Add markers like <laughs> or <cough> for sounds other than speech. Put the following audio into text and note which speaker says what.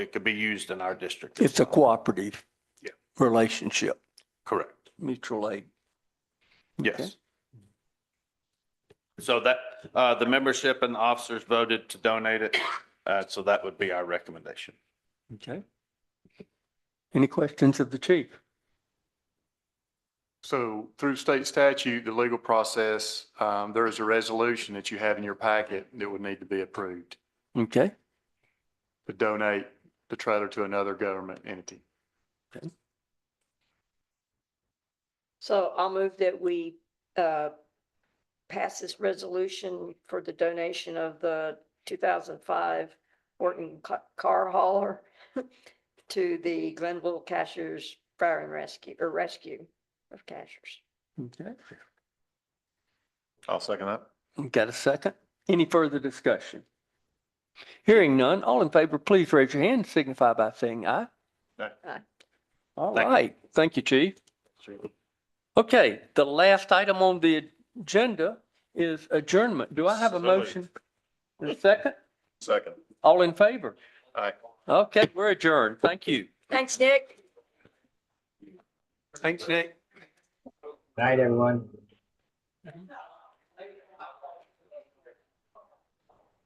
Speaker 1: It could be used in our district. as
Speaker 2: It's a
Speaker 1: well.
Speaker 2: cooperative
Speaker 1: Yeah.
Speaker 2: relationship,
Speaker 1: Correct.
Speaker 2: mutual aid. Okay.
Speaker 1: Yes. So that, uh, the membership and officers voted to donate it. Uh, so that would be our recommendation.
Speaker 2: Okay. Any questions of the chief?
Speaker 3: So through state statute, the legal process, um, there is a resolution that you have in your packet that would need to be approved
Speaker 2: Okay,
Speaker 3: to donate the trailer to another government entity.
Speaker 4: So I'll move that we uh, pass this resolution for the donation of the 2005 Horton ca- car hauler <laughs> to the Glenville Cashers Fire and Rescue, or Rescue of Cashers.
Speaker 2: okay.
Speaker 3: I'll second that.
Speaker 2: Got a second? Any further discussion? Hearing none, all in favor, please raise your hand, and signify by saying aye.
Speaker 3: Aye.
Speaker 4: Aye.
Speaker 2: All
Speaker 1: Thank you.
Speaker 2: right, thank you, chief. Okay, the last item on the agenda is adjournment. Do I have
Speaker 1: So
Speaker 2: a
Speaker 1: moved.
Speaker 2: motion? A second?
Speaker 3: Second.
Speaker 2: All in favor?
Speaker 3: Aye.
Speaker 2: Okay, we're adjourned. Thank you.
Speaker 4: Thanks, Nick.
Speaker 2: Thanks, Nick.
Speaker 5: Night, everyone.